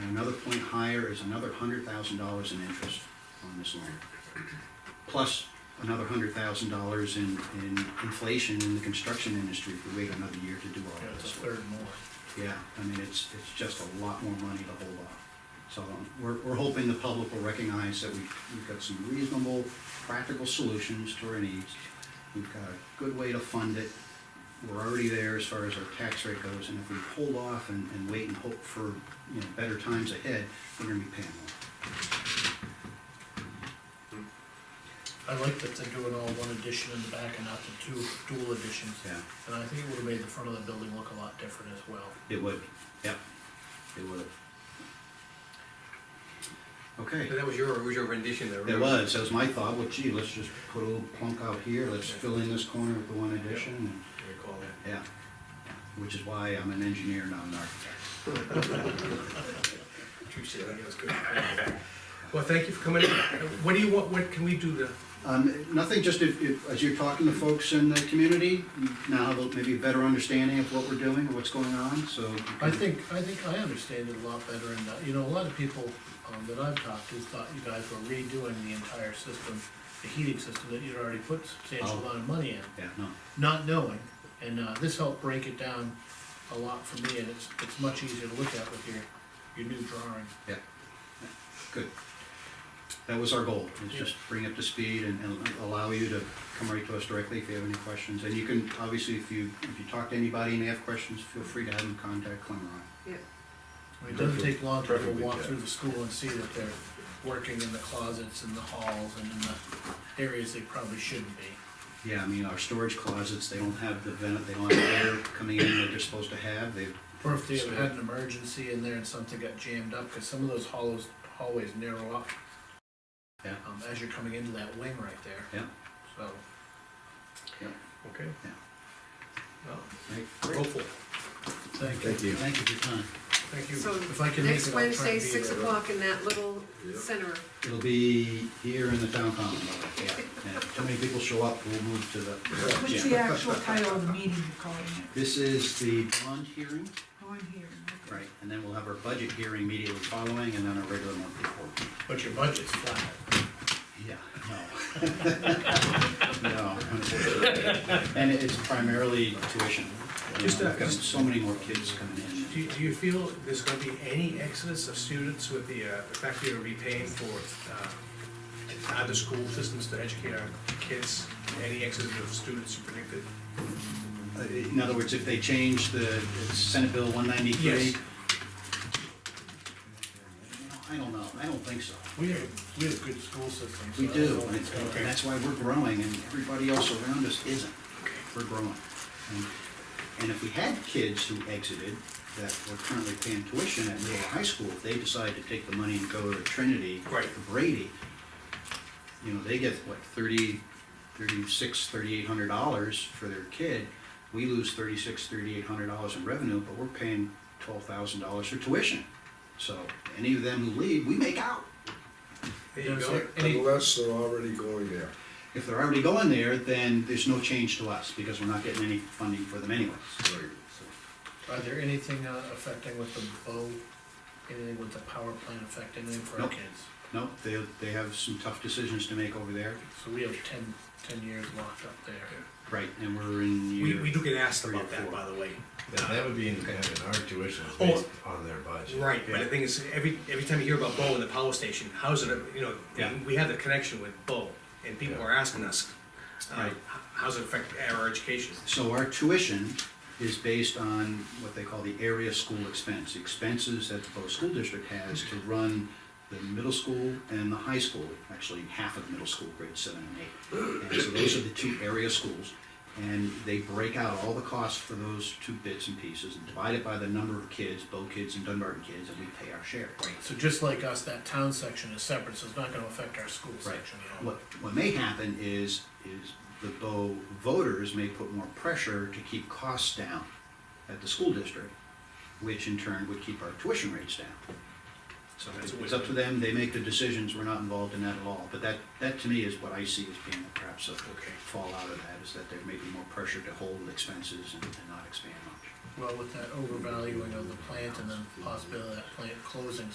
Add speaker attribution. Speaker 1: Another point higher is another hundred thousand dollars in interest on this loan. Plus another hundred thousand dollars in, in inflation in the construction industry if we wait another year to do all
Speaker 2: Yeah,
Speaker 1: of
Speaker 2: it's a
Speaker 1: this.
Speaker 2: third more.
Speaker 1: Yeah, I mean, it's, it's just a lot more money to hold off. So um, we're, we're hoping the public will recognize that we've, we've got some reasonable, practical solutions to our needs. We've got a good way to fund it. We're already there as far as our tax rate goes, and if we hold off and, and wait and hope for, you know, better times ahead, we're gonna be paying more.
Speaker 2: I like that they're doing all one edition in the back and not the two dual editions.
Speaker 1: Yeah,
Speaker 2: And I think it would've made the front of the building look a lot different as well.
Speaker 1: it would, yeah, it would. Okay.
Speaker 3: That was your, was your rendition there,
Speaker 1: It
Speaker 3: remember?
Speaker 1: was, that was my thought, well, gee, let's just put a little plunk out here, let's fill in this corner with the one addition, and,
Speaker 3: I recall that.
Speaker 1: yeah. Which is why I'm an engineer, not an architect.
Speaker 3: True shit, I think that's good. Well, thank you for coming in. What do you want, what can we do to,
Speaker 1: Um, nothing, just if, if, as you're talking to folks in the community, you now have a- maybe a better understanding of what we're doing, and what's going on, so. you
Speaker 2: I
Speaker 1: can-
Speaker 2: think, I think I understand it a lot better, and, uh, you know, a lot of people, um, that I've talked to thought you guys were redoing the entire system, the heating system that you'd already put substantial
Speaker 1: Oh.
Speaker 2: amount of money in,
Speaker 1: Yeah, no,
Speaker 2: not knowing, and, uh, this helped break it down a lot for me, and it's, it's much easier to look at with your, your new drawing.
Speaker 1: yeah, good. That was our goal, is just bring up to speed and, and allow you to come right to us directly if you have any questions. And you can, obviously, if you, if you talk to anybody and they have questions, feel free to have them contact Clemmerine.
Speaker 2: I mean, It doesn't take long to go
Speaker 4: Perfectly
Speaker 2: walk
Speaker 4: good.
Speaker 2: through the school and see that they're working in the closets and the halls and in the areas they probably shouldn't be.
Speaker 1: Yeah, I mean, our storage closets, they don't have the vent, they don't have air coming in that they're supposed to have, they,
Speaker 2: Or if they ever had an emergency in there and something got jammed up, cause some of those hollows, hallways narrow up.
Speaker 1: Yeah.
Speaker 2: Um, as you're coming into that wing right there,
Speaker 1: yeah,
Speaker 2: so.
Speaker 3: okay?
Speaker 1: Yeah.
Speaker 3: Well,
Speaker 1: right.
Speaker 3: we're hopeful.
Speaker 2: Thank you.
Speaker 4: you.
Speaker 1: Thank you for your time.
Speaker 3: Thank you.
Speaker 5: So
Speaker 2: If I can make it, I'll
Speaker 5: next
Speaker 2: try and
Speaker 5: Wednesday,
Speaker 2: be
Speaker 5: six
Speaker 2: there.
Speaker 5: o'clock in that little center.
Speaker 1: It'll be here in the town common, yeah, yeah, too many people show up, we'll move to the
Speaker 6: What's the
Speaker 1: gym.
Speaker 6: actual title of the meeting you're calling it?
Speaker 1: This is the bond hearing,
Speaker 6: Oh, I'm here. okay.
Speaker 1: right, and then we'll have our budget hearing immediately following, and then our regular monthly report.
Speaker 2: But your budget's flat.
Speaker 1: Yeah, no. No, unfortunately. And it's primarily tuition, you
Speaker 3: Just,
Speaker 1: know,
Speaker 3: uh,
Speaker 1: I've got
Speaker 3: just-
Speaker 1: so many more kids coming in.
Speaker 3: Do, you- do you feel there's gonna be any exodus of students with the, uh, the fact that you're repaying for, uh, other school systems to educate our kids? Any exodus of students you predicted?
Speaker 1: Uh, In other words, if they change the it's Senate Bill one ninety-three?
Speaker 3: Yes.
Speaker 1: I don't know, I don't think so.
Speaker 2: We have, a- we have a good school system. so
Speaker 1: We
Speaker 2: I
Speaker 1: do,
Speaker 2: know
Speaker 1: and it's-
Speaker 2: it's gonna-
Speaker 1: and that's why we're growing, and everybody else around us isn't. We're growing. And- And if we had kids who exited that were currently paying tuition at Middle High School, if they decide to take the money and go to Trinity or
Speaker 3: Right.
Speaker 1: Brady, you know, they get, what, thirty, thirty-six, thirty-eight hundred dollars for their kid. We lose thirty-six, thirty-eight hundred dollars in revenue, but we're paying twelve thousand dollars for tuition. So any of them who leave, we make out.
Speaker 3: There you go. Any,
Speaker 4: Unless they're already going there.
Speaker 1: If they're already going there, then there's no change to us, because we're not getting any funding for them anyways. So,
Speaker 2: Are there anything uh, affecting with the bow, anything with the power plant affect anything for our
Speaker 1: Nope.
Speaker 2: kids?
Speaker 1: No, they, they have some tough decisions to make over there,
Speaker 2: So we have ten, ten years locked up there.
Speaker 1: right, and we're in
Speaker 3: we,
Speaker 1: year.
Speaker 3: we do get asked
Speaker 1: Three or
Speaker 3: about that,
Speaker 1: four.
Speaker 3: by the way.
Speaker 7: That, that would be independent, our tuition is
Speaker 3: Oh.
Speaker 7: based on their budget.
Speaker 3: Right, but the
Speaker 1: Yeah.
Speaker 3: thing is, every, every time you hear about Bo and the power station, how's it, you know,
Speaker 1: Yeah.
Speaker 3: we have the connection with Bo, and people
Speaker 7: Yeah.
Speaker 3: are asking us, uh,
Speaker 1: Right.
Speaker 3: h- how's it affect our education?
Speaker 1: So our tuition is based on what they call the area school expense, the expenses that the Bow School District has to run the middle school and the high school, actually half of middle school, grade seven and eight. And so those are the two area schools, and they break out all the costs for those two bits and pieces and divide it by the number of kids, Bow kids and Dunbarton kids, and we pay our share.
Speaker 2: So just like us, that town section is separate, so it's not gonna affect our school
Speaker 1: Right.
Speaker 2: section at all.
Speaker 1: What, what may happen is, is the Bow voters may put more pressure to keep costs down at the school district, which in turn would keep our tuition rates down. So
Speaker 3: That's
Speaker 1: it's up to them, they make the decisions, we're not involved in that at all. But that, that to me is what I see as being perhaps a fallout of that, is that there may be more pressure to hold expenses and and not expand much.
Speaker 2: Well, with that overvaluing of the plant and then possibility of that plant closing